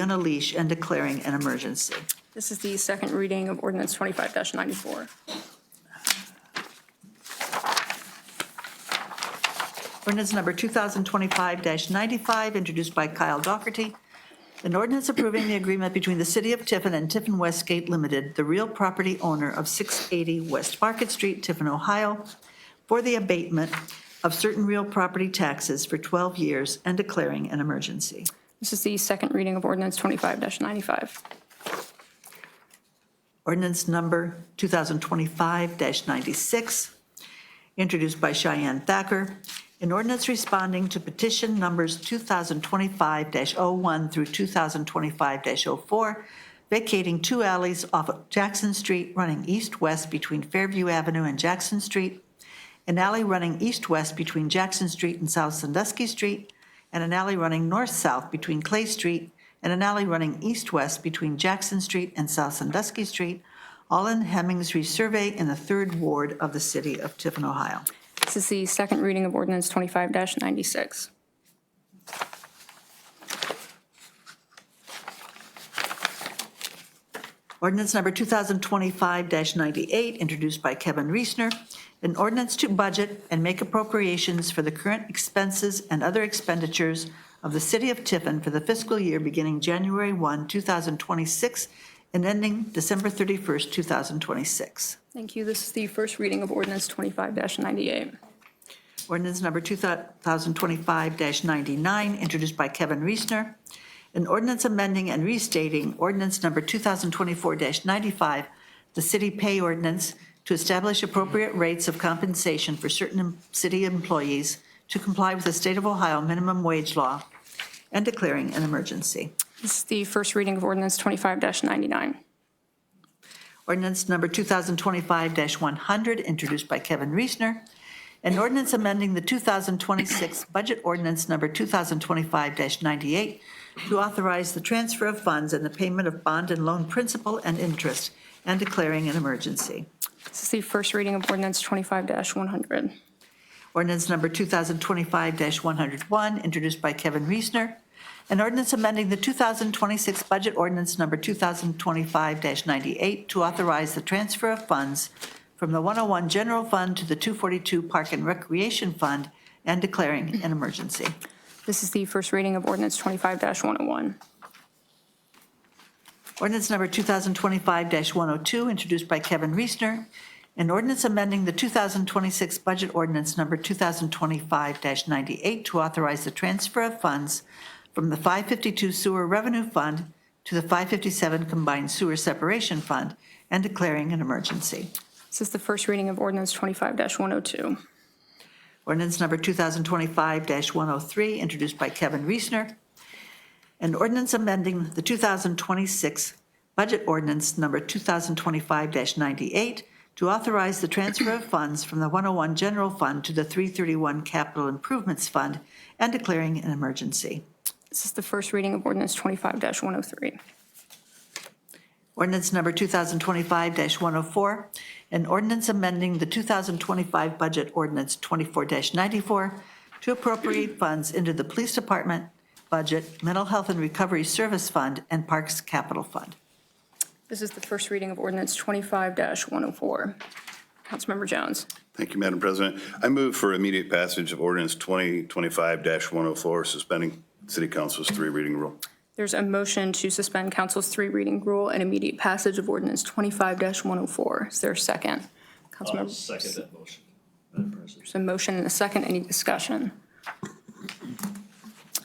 on a leash and declaring an emergency. This is the second reading of ordinance 25-94. Ordinance number 2025-95, introduced by Kyle Dougherty. An ordinance approving the agreement between the City of Tiffin and Tiffin Westgate Limited, the real property owner of 680 West Market Street, Tiffin, Ohio, for the abatement of certain real property taxes for 12 years and declaring an emergency. This is the second reading of ordinance 25-95. Ordinance number 2025-96, introduced by Cheyenne Thacker. An ordinance responding to petition numbers 2025-01 through 2025-04, vacating two alleys off of Jackson Street running east-west between Fairview Avenue and Jackson Street, an alley running east-west between Jackson Street and South Sandusky Street, and an alley running north-south between Clay Street, and an alley running east-west between Jackson Street and South Sandusky Street, all in Hemmings Resurvey in the Third Ward of the City of Tiffin, Ohio. This is the second reading of ordinance 25-96. Ordinance number 2025-98, introduced by Kevin Reesner, an ordinance to budget and make appropriations for the current expenses and other expenditures of the City of Tiffin for the fiscal year beginning January 1, 2026, and ending December 31st, 2026. Thank you. This is the first reading of ordinance 25-98. Ordinance number 2025-99, introduced by Kevin Reesner. An ordinance amending and restating ordinance number 2024-95, the city pay ordinance, to establish appropriate rates of compensation for certain em- city employees to comply with the state of Ohio minimum wage law and declaring an emergency. This is the first reading of ordinance 25-99. Ordinance number 2025-100, introduced by Kevin Reesner. An ordinance amending the 2026 budget ordinance number 2025-98 to authorize the transfer of funds and the payment of bond and loan principal and interest and declaring an emergency. This is the first reading of ordinance 25-100. Ordinance number 2025-101, introduced by Kevin Reesner. An ordinance amending the 2026 budget ordinance number 2025-98 to authorize the transfer of funds from the 101 General Fund to the 242 Park and Recreation Fund and declaring an emergency. This is the first reading of ordinance 25-101. Ordinance number 2025-102, introduced by Kevin Reesner, an ordinance amending the 2026 budget ordinance number 2025-98 to authorize the transfer of funds from the 552 Sewer Revenue Fund to the 557 Combined Sewer Separation Fund and declaring an emergency. This is the first reading of ordinance 25-102. Ordinance number 2025-103, introduced by Kevin Reesner. An ordinance amending the 2026 budget ordinance number 2025-98 to authorize the transfer of funds from the 101 General Fund to the 331 Capital Improvements Fund and declaring an emergency. This is the first reading of ordinance 25-103. Ordinance number 2025-104, an ordinance amending the 2025 budget ordinance 24-94 to appropriate funds into the Police Department budget, Mental Health and Recovery Service Fund, and Parks Capital Fund. This is the first reading of ordinance 25-104. Councilmember Jones. Thank you, Madam President. I move for immediate passage of ordinance 2025-104, suspending city council's three reading rule. There's a motion to suspend council's three reading rule and immediate passage of ordinance 25-104. Is there a second? I'll Councilmember, second that motion, Madam President. there's a motion and a second. Any discussion?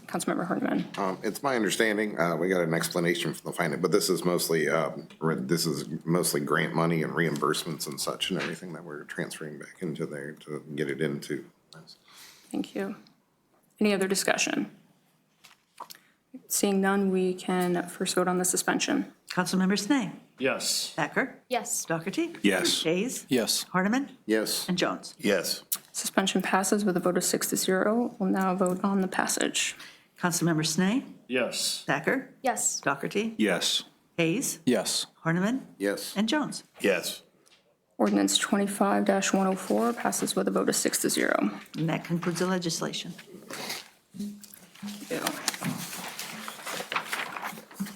Councilmember Herniman. Um, It's my understanding, uh, we got an explanation from the finance, but this is mostly, um, re- this is mostly grant money and reimbursements and such and everything that we're transferring back into there to get it into. this. Thank you. Any other discussion? Seeing none, we can first vote on the suspension. Councilmember Snee. Yes, Thacker. Yes. Dougherty. Yes. Hayes. Yes. Horniman. Yes, And Jones. Yes. Suspension passes with a vote of six to zero. We'll now vote on the passage. Councilmember Snee. yes, Thacker. Yes. Dougherty. Yes. Hayes. Yes. Horniman. yes, And Jones. Yes. Ordinance 25-104 passes with a vote of six to zero. And that concludes the legislation. Thank you.